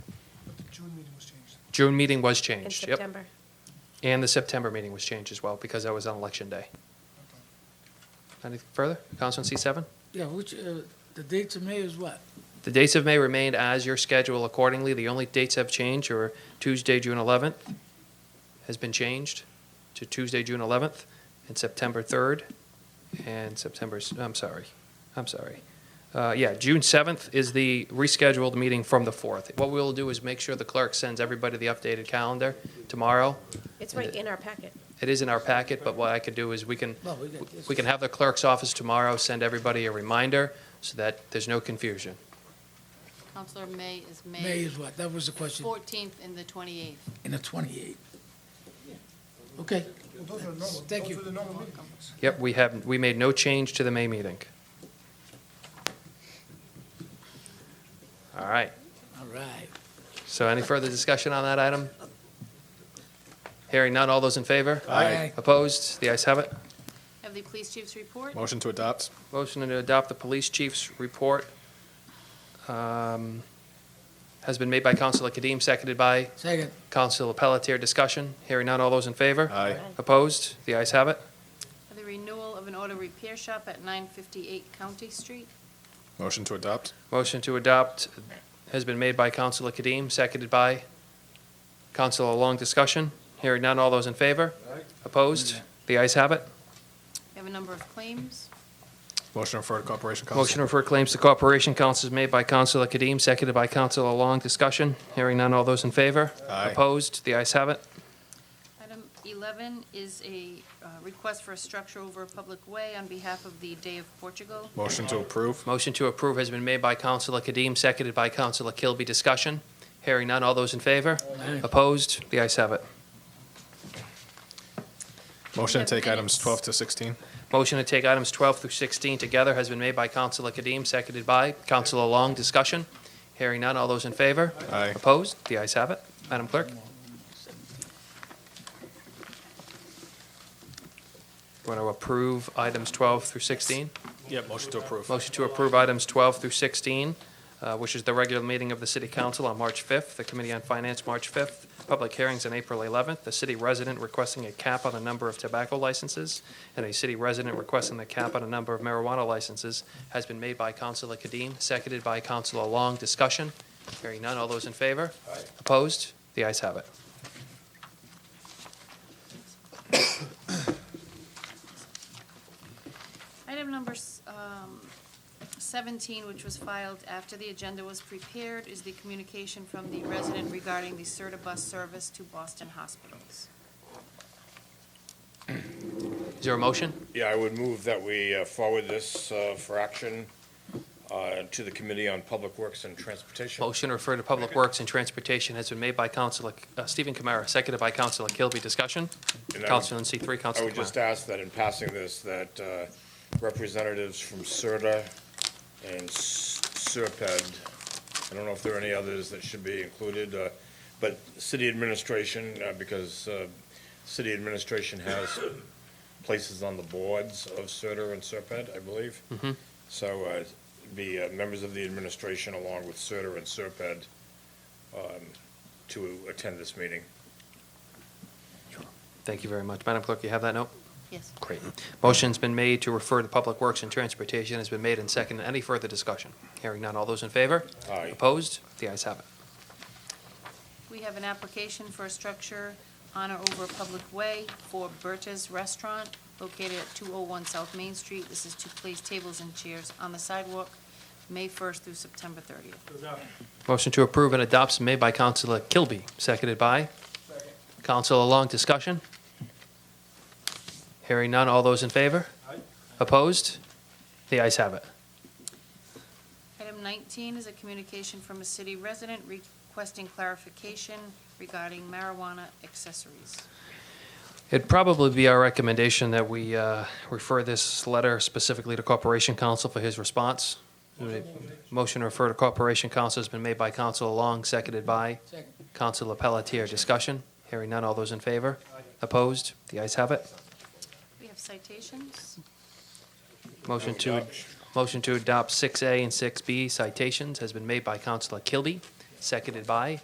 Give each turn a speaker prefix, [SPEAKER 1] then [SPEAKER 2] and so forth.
[SPEAKER 1] June meeting was changed.
[SPEAKER 2] June meeting was
[SPEAKER 3] in
[SPEAKER 2] changed, yep.
[SPEAKER 3] September.
[SPEAKER 2] And the September meeting was changed as well, because that was on Election Day. Any further? Councilman C seven?
[SPEAKER 4] Yeah, which, uh, the date to May is what?
[SPEAKER 2] The dates of May remained as your schedule accordingly. The only dates have changed are Tuesday, June 11th has been changed to Tuesday, June 11th, and September 3rd, and September, s- I'm sorry, I'm sorry. Uh, Yeah, June 7th is the rescheduled meeting from the 4th. What we'll do is make sure the clerk sends everybody the updated calendar tomorrow.
[SPEAKER 3] It's right in our packet.
[SPEAKER 2] It is in our packet, but what I could do is we can,
[SPEAKER 4] No, we got this.
[SPEAKER 2] we can have the clerk's office tomorrow send everybody a reminder so that there's no confusion.
[SPEAKER 5] Counselor May is May.
[SPEAKER 4] May is what? That was the question,
[SPEAKER 5] 14th and the 28th.
[SPEAKER 4] in the 28th. Okay,
[SPEAKER 1] Well, those are normal,
[SPEAKER 4] Thank
[SPEAKER 1] those
[SPEAKER 4] you.
[SPEAKER 1] are the normal meeting dates.
[SPEAKER 2] Yep, we have, we made no change to the May meeting. All right,
[SPEAKER 4] all right.
[SPEAKER 2] so any further discussion on that item? Hearing none, all those in favor?
[SPEAKER 4] Aye.
[SPEAKER 2] Opposed? The ayes have it.
[SPEAKER 5] Have the police chief's report.
[SPEAKER 6] Motion to adopt.
[SPEAKER 2] Motion to adopt the police chief's report um, has been made by Counselor Kadim, seconded by
[SPEAKER 4] Second,
[SPEAKER 2] Counselor Pelletier. Discussion, hearing none, all those in favor?
[SPEAKER 6] Aye.
[SPEAKER 2] Opposed? The ayes have it.
[SPEAKER 5] Have the renewal of an auto repair shop at 958 County Street.
[SPEAKER 6] Motion to adopt.
[SPEAKER 2] Motion to adopt has been made by Counselor Kadim, seconded by Counselor Long. Discussion? Hearing none. All those in favor? Opposed? The ayes have it.
[SPEAKER 5] We have a number of claims.
[SPEAKER 6] Motion to refer to Corporation Council.
[SPEAKER 2] Motion to refer claims to Corporation Council is made by Counselor Kadim, seconded by Counselor Long. Discussion? Hearing none. All those in favor?
[SPEAKER 6] Aye.
[SPEAKER 2] Opposed? The ayes have it.
[SPEAKER 5] Item 11 is a uh, request for a structure over a public way on behalf of the Day of Portugal.
[SPEAKER 6] Motion to approve.
[SPEAKER 2] Motion to approve has been made by Counselor Kadim, seconded by Counselor Kilby. Discussion? Hearing none. All those in favor?
[SPEAKER 4] Aye.
[SPEAKER 2] Opposed? The ayes have it.
[SPEAKER 6] Motion to
[SPEAKER 5] have
[SPEAKER 6] take items
[SPEAKER 5] minutes.
[SPEAKER 6] 12 to 16.
[SPEAKER 2] Motion to take items 12 through 16 together has been made by Counselor Kadim, seconded by Counselor Long. Discussion? Hearing none. All those in favor?
[SPEAKER 6] Aye.
[SPEAKER 2] Opposed? The ayes have it. Madam Clerk? Want to approve items 12 through 16?
[SPEAKER 6] Yeah, motion to approve.
[SPEAKER 2] Motion to approve items 12 through 16, uh, which is the regular meeting of the City Council on March 5th, the Committee on Finance, March 5th, public hearings on April 11th, the city resident requesting a cap on the number of tobacco licenses, and a city resident requesting the cap on a number of marijuana licenses, has been made by Councilor Kadim, seconded by Councilor Long. Discussion? Hearing none. All those in favor? Opposed? The ayes have it.
[SPEAKER 5] Item number s- um, 17, which was filed after the agenda was prepared, is the communication from the resident regarding the Serta bus service to Boston hospitals.
[SPEAKER 2] Is there a motion?
[SPEAKER 7] Yeah, I would move that we uh, forward this uh, for action uh, to the Committee on Public Works and Transportation.
[SPEAKER 2] Motion to refer to Public Works and Transportation has been made by Councilor uh, Stephen Kamara, seconded by Councilor Kilby. Discussion?
[SPEAKER 7] And I would-
[SPEAKER 2] Councilor in C3,
[SPEAKER 7] I
[SPEAKER 2] Councilor
[SPEAKER 7] would just
[SPEAKER 2] Kamara.
[SPEAKER 7] ask that in passing this, that uh, representatives from CERTA and S- SERPED, I don't know if there are any others that should be included, uh, but city administration, uh, because uh, city administration has places on the boards of CERTA and SERPED, I believe. So uh, be uh, members of the administration along with CERTA and SERPED um, to attend this meeting.
[SPEAKER 2] Thank you very much. Madam Clerk, you have that note?
[SPEAKER 5] Yes.
[SPEAKER 2] Great. Motion's been made to refer to Public Works and Transportation has been made and seconded. Any further discussion? Hearing none. All those in favor?
[SPEAKER 7] Aye.
[SPEAKER 2] Opposed? The ayes have it.
[SPEAKER 5] We have an application for a structure on or over a public way for Berta's Restaurant located at 201 South Main Street. This is to place tables and chairs on the sidewalk, May 1st through September 30th.
[SPEAKER 2] Motion to approve and adopt is made by Councilor Kilby, seconded by Councilor Long. Discussion? Hearing none. All those in favor? Opposed? The ayes have it.
[SPEAKER 5] Item 19 is a communication from a city resident requesting clarification regarding marijuana accessories.
[SPEAKER 2] It'd probably be our recommendation that we uh, refer this letter specifically to Corporation Counsel for his response. Motion to refer to Corporation Counsel has been made by Counsel Long, seconded by
[SPEAKER 4] second,
[SPEAKER 2] Counsel Pelletier. Discussion? Hearing none. All those in favor? Opposed? The ayes have it.
[SPEAKER 5] We have citations.
[SPEAKER 2] Motion to, motion to adopt 6A and 6B citations has been made by Counsel Kilby, seconded by